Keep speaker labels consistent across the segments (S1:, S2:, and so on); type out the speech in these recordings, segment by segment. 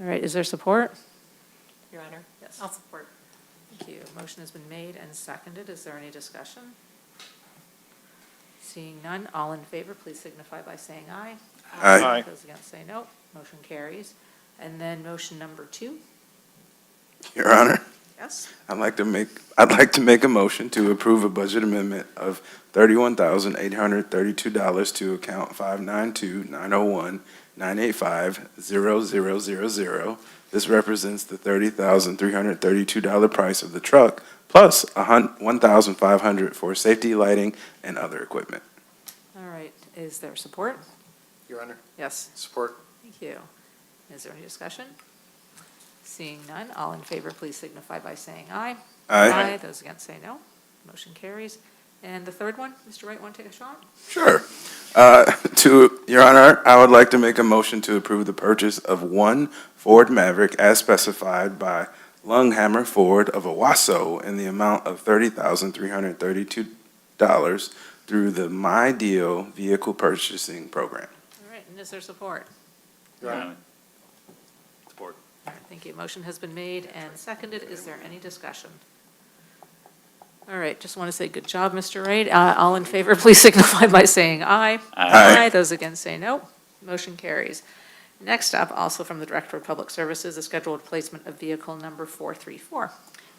S1: All right, is there support?
S2: Your Honor?
S1: Yes.
S2: I'll support.
S1: Thank you. Motion has been made and seconded. Is there any discussion? Seeing none, all in favor, please signify by saying aye.
S3: Aye. Aye.
S1: Those against say no. Motion carries. And then motion number two.
S3: Your Honor,
S1: Yes.
S3: I'd like to make, I'd like to make a motion to approve a budget amendment of thirty-one thousand eight hundred thirty-two dollars to account five nine two nine oh one nine eight five zero zero zero zero. This represents the thirty thousand three hundred thirty-two dollar price of the truck, plus a hun, one thousand five hundred for safety, lighting, and other equipment.
S1: All right, is there support?
S4: Your Honor,
S1: Yes.
S4: support.
S1: Thank you. Is there any discussion? Seeing none, all in favor, please signify by saying aye.
S3: Aye.
S1: Those against say no. Motion carries. And the third one, Mr. Wright, want to take a shot?
S3: Sure. Uh, To, Your Honor, I would like to make a motion to approve the purchase of one Ford Maverick as specified by Lunghammer Ford of Owasso in the amount of $30,332 through the My Deal Vehicle Purchasing Program.
S1: All right, and is there support?
S4: Your Honor,
S5: Support.
S1: All right, Thank you. Motion has been made and seconded. Is there any discussion? All right, just want to say good job, Mr. Wright. Uh, All in favor, please signify by saying aye.
S3: Aye.
S1: Those against say no. Motion carries. Next up, also from the Director of Public Services, the scheduled placement of vehicle number 434.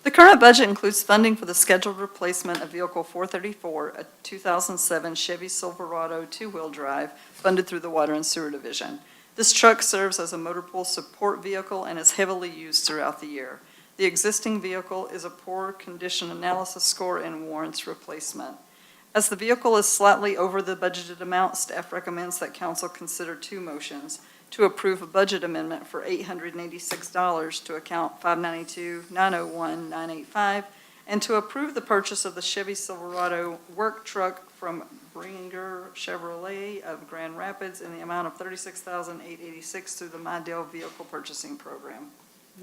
S6: The current budget includes funding for the scheduled replacement of Vehicle 434, a 2007 Chevy Silverado two-wheel drive funded through the Water and Sewer Division. This truck serves as a motor pool support vehicle and is heavily used throughout the year. The existing vehicle is a poor condition analysis score and warrants replacement. As the vehicle is slightly over the budgeted amount, staff recommends that council consider two motions to approve a budget amendment for $886 to account 592-901-985, and to approve the purchase of the Chevy Silverado work truck from Bringer Chevrolet of Grand Rapids in the amount of $36,886 through the My Deal Vehicle Purchasing Program.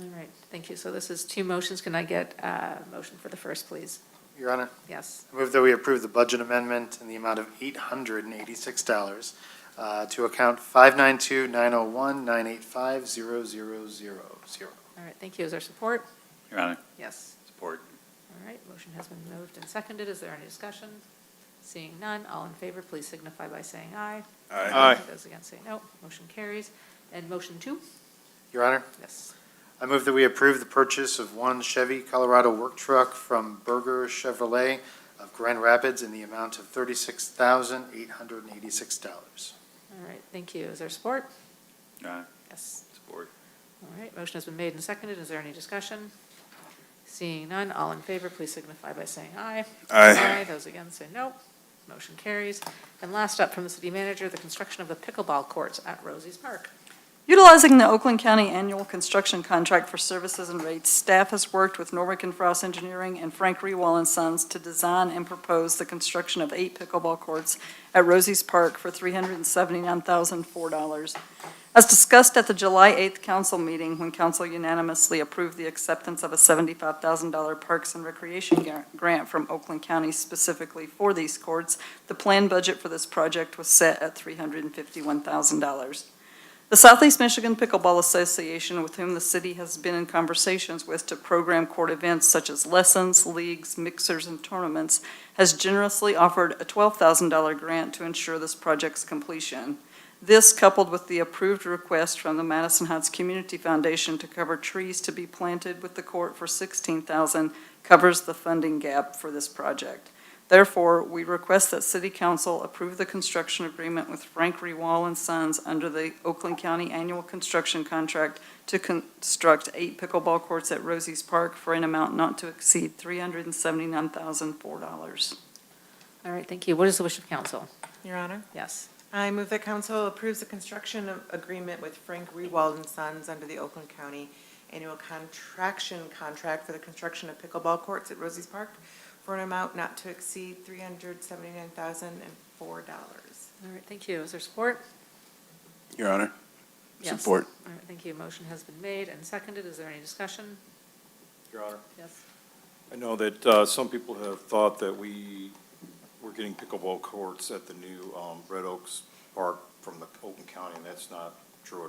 S1: All right, thank you. So this is two motions. Can I get uh, a motion for the first, please?
S4: Your Honor,
S1: Yes.
S4: I move that we approve the budget amendment in the amount of $886 uh, to account 592-901-985-0000.
S1: All right, thank you. Is there support?
S5: Your Honor,
S1: Yes.
S5: support.
S1: All right, motion has been moved and seconded. Is there any discussion? Seeing none, all in favor, please signify by saying aye. Those against say no. Motion carries. And motion two?
S4: Your Honor,
S1: Yes.
S4: I move that we approve the purchase of one Chevy Colorado work truck from Berger Chevrolet of Grand Rapids in the amount of $36,886.
S1: All right, thank you. Is there support?
S5: Your Honor,
S1: Yes.
S5: support.
S1: All right, motion has been made and seconded. Is there any discussion? Seeing none, all in favor, please signify by saying aye.
S3: Aye.
S1: Those against say no. Motion carries. And last up from the city manager, the construction of the pickleball courts at Rosie's Park.
S6: Utilizing the Oakland County Annual Construction Contract for Services and Rates, staff has worked with Norwick and Frost Engineering and Frank Rewall and Sons to design and propose the construction of eight pickleball courts at Rosie's Park for $379,004. As discussed at the July 8th council meeting, when council unanimously approved the acceptance of a $75,000 Parks and Recreation gar- grant from Oakland County specifically for these courts, the planned budget for this project was set at $351,000. The Southeast Michigan Pickleball Association, with whom the city has been in conversations with to program court events such as lessons, leagues, mixers, and tournaments, has generously offered a $12,000 grant to ensure this project's completion. This, coupled with the approved request from the Madison Heights Community Foundation to cover trees to be planted with the court for $16,000, covers the funding gap for this project. Therefore, we request that City Council approve the construction agreement with Frank Rewall and Sons under the Oakland County Annual Construction Contract to construct eight pickleball courts at Rosie's Park for an amount not to exceed $379,004.
S1: All right, thank you. What is the wish of council?
S2: Your Honor,
S1: Yes.
S2: I move that council approves the construction of- agreement with Frank Rewald and Sons under the Oakland County Annual Contraction Contract for the construction of pickleball courts at Rosie's Park for an amount not to exceed $379,004.
S1: All right, thank you. Is there support?
S3: Your Honor,
S1: Yes.
S3: support.
S1: All right, thank you. Motion has been made and seconded. Is there any discussion?
S7: Your Honor,
S1: Yes.
S7: I know that uh, some people have thought that we were getting pickleball courts at the new um, Red Oaks Park from the Oakland County, and that's not true at all.